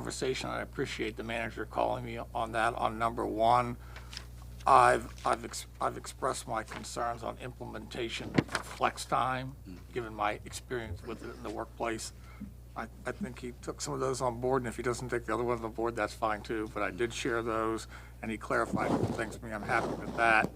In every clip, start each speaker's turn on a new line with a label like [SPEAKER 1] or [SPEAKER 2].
[SPEAKER 1] conversation. I appreciate the manager calling me on that. On number one, I've, I've, ex- I've expressed my concerns on implementation of flex time, given my experience with it in the workplace. I, I think he took some of those on board, and if he doesn't take the other ones on board, that's fine too. But I did share those, and he clarified some things for me. I'm happy with that.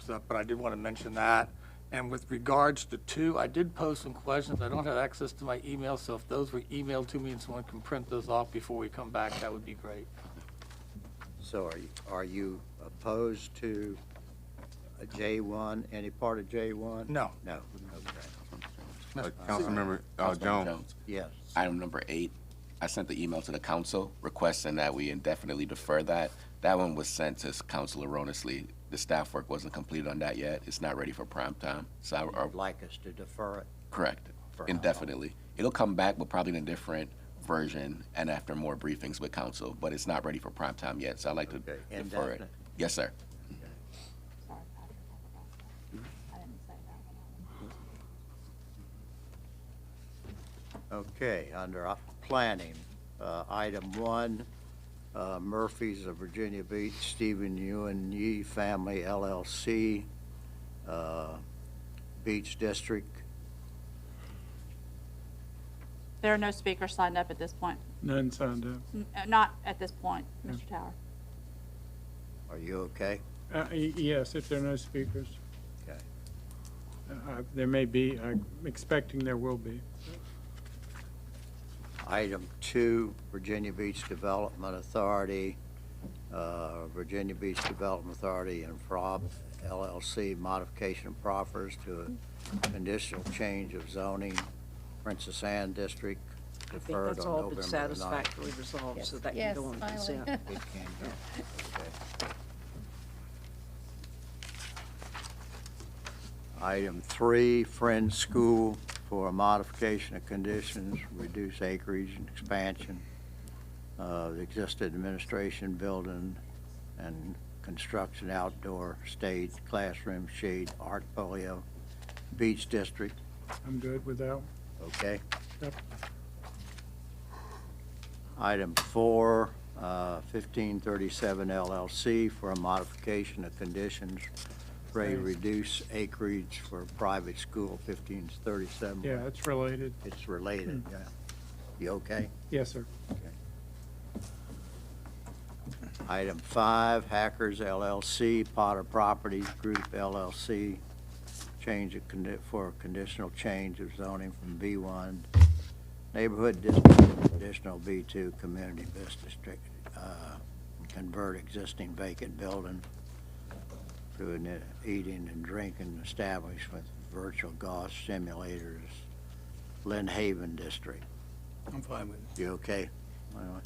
[SPEAKER 1] So, but I did want to mention that. And with regards to two, I did post some questions. I don't have access to my email, so if those were emailed to me and someone can print those off before we come back, that would be great.
[SPEAKER 2] So are you, are you opposed to uh, J1, any part of J1?
[SPEAKER 1] No.
[SPEAKER 2] No, okay,
[SPEAKER 3] Uh, Councilmember uh, Jones,
[SPEAKER 2] yes.
[SPEAKER 4] Item number eight, I sent the email to the council requesting that we indefinitely defer that. That one was sent to council erroneously. The staff work wasn't completed on that yet. It's not ready for prime time. So I, or,
[SPEAKER 2] You'd like us to defer it?
[SPEAKER 4] correct,
[SPEAKER 2] For how long?
[SPEAKER 4] indefinitely. It'll come back, but probably in a different version and after more briefings with council, but it's not ready for prime time yet, so I'd like to
[SPEAKER 2] Okay,
[SPEAKER 4] defer it.
[SPEAKER 2] indefinite.
[SPEAKER 4] Yes, sir.
[SPEAKER 5] Sorry, Patrick, I forgot that. I didn't say that one out.
[SPEAKER 2] Okay, under uh, planning, uh, item one, uh, Murphy's of Virginia Beach, Stephen Ewan Yee Family LLC, uh, Beach District.
[SPEAKER 5] There are no speakers signed up at this point.
[SPEAKER 6] None signed up.
[SPEAKER 5] N- uh, Not at this point, Mr. Tower.
[SPEAKER 2] Are you okay?
[SPEAKER 6] Uh, y- Yes, if there are no speakers.
[SPEAKER 2] Okay.
[SPEAKER 6] Uh, I- There may be, I'm expecting there will be.
[SPEAKER 2] Item two, Virginia Beach Development Authority, uh, Virginia Beach Development Authority and Prob LLC modification proffers to a conditional change of zoning, Princess Anne District,
[SPEAKER 7] I think
[SPEAKER 2] deferred
[SPEAKER 7] that's
[SPEAKER 2] on
[SPEAKER 7] all
[SPEAKER 2] November
[SPEAKER 7] been
[SPEAKER 2] the ninth.
[SPEAKER 7] satisfactorily resolved, so that can go on consent.
[SPEAKER 2] It can go, okay. Item three, Friends School for a modification of conditions, reduce acreage and expansion of the existing administration building and construction outdoor stage, classroom shade, art folio, beach district,
[SPEAKER 6] I'm good with that.
[SPEAKER 2] okay?
[SPEAKER 6] Yep.
[SPEAKER 2] Item four, uh, 1537 LLC for a modification of conditions for a
[SPEAKER 6] Right.
[SPEAKER 2] reduced acreage for private school, 1537.
[SPEAKER 6] Yeah, Hmm. it's related.
[SPEAKER 2] It's related, yeah. You okay?
[SPEAKER 6] Yes, sir.
[SPEAKER 2] Item five, Hackers LLC, Potter Properties Group LLC, change of, condi- for a conditional change of zoning from B1 Neighborhood District to Conditional B2 Community Business District, uh, convert existing vacant building to an uh, eating and drinking establishment, virtual golf simulators, Lynn Haven District.
[SPEAKER 8] I'm fine with it.
[SPEAKER 2] You okay? Well,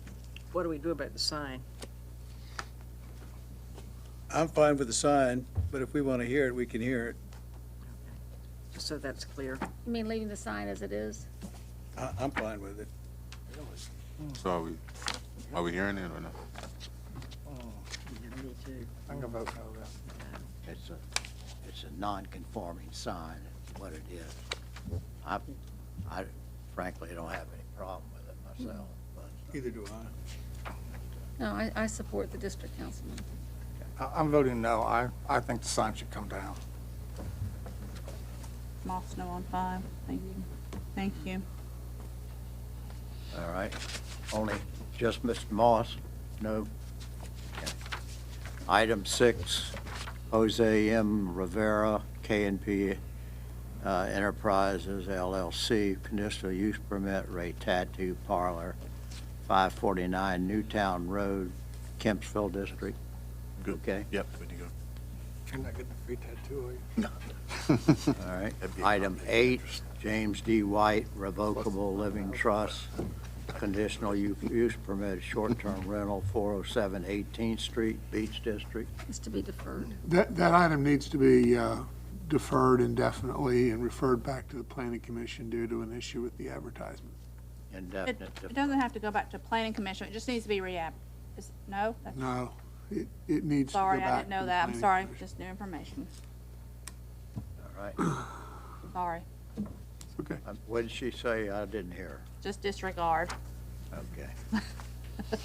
[SPEAKER 7] What do we do about the sign?
[SPEAKER 8] I'm fine with the sign, but if we want to hear it, we can hear it.
[SPEAKER 7] So that's clear.
[SPEAKER 9] You mean leaving the sign as it is?
[SPEAKER 8] I, I'm fine with it.
[SPEAKER 3] so are we, are we hearing it or not?
[SPEAKER 7] Yeah, me too.
[SPEAKER 1] I'm gonna vote no then.
[SPEAKER 2] It's a, it's a non-conforming sign, is what it is. I, I frankly don't have any problem with it myself, but
[SPEAKER 8] Either do I.
[SPEAKER 9] No, I, I support the district councilman.
[SPEAKER 1] I- I'm voting no. I, I think the sign should come down.
[SPEAKER 5] Moss, no on five. Thank you. Thank you.
[SPEAKER 2] All right, only just Mr. Moss, no. Okay. Item six, Jose M. Rivera, K and P uh, Enterprises LLC, conditional use permit, Ray Tattoo Parlor, 549 Newtown Road, Kempsville District. Okay,
[SPEAKER 3] Yep, good to go.
[SPEAKER 1] You're not getting a free tattoo, are you?
[SPEAKER 2] all right.
[SPEAKER 3] That'd be a
[SPEAKER 2] Item eight, James D. White, Revocable Living Trust, conditional u- use permit, short-term rental, 407 18th Street, Beach District.
[SPEAKER 9] It's to be deferred.
[SPEAKER 10] That, that item needs to be uh, deferred indefinitely and referred back to the planning commission due to an issue with the advertisement.
[SPEAKER 5] It
[SPEAKER 2] Indefinite.
[SPEAKER 5] it doesn't have to go back to planning commission. It just needs to be re-app. Is- No? That's-
[SPEAKER 10] No, it, it needs to go
[SPEAKER 5] Sorry, I
[SPEAKER 10] back
[SPEAKER 5] didn't
[SPEAKER 10] to
[SPEAKER 5] know
[SPEAKER 10] the
[SPEAKER 5] that.
[SPEAKER 10] planning
[SPEAKER 5] I'm sorry.
[SPEAKER 10] commission.
[SPEAKER 5] Just new information.
[SPEAKER 2] All right.
[SPEAKER 5] Sorry.
[SPEAKER 10] Okay.
[SPEAKER 2] Um, What did she say? I didn't hear.
[SPEAKER 5] Just disregard.
[SPEAKER 2] Okay.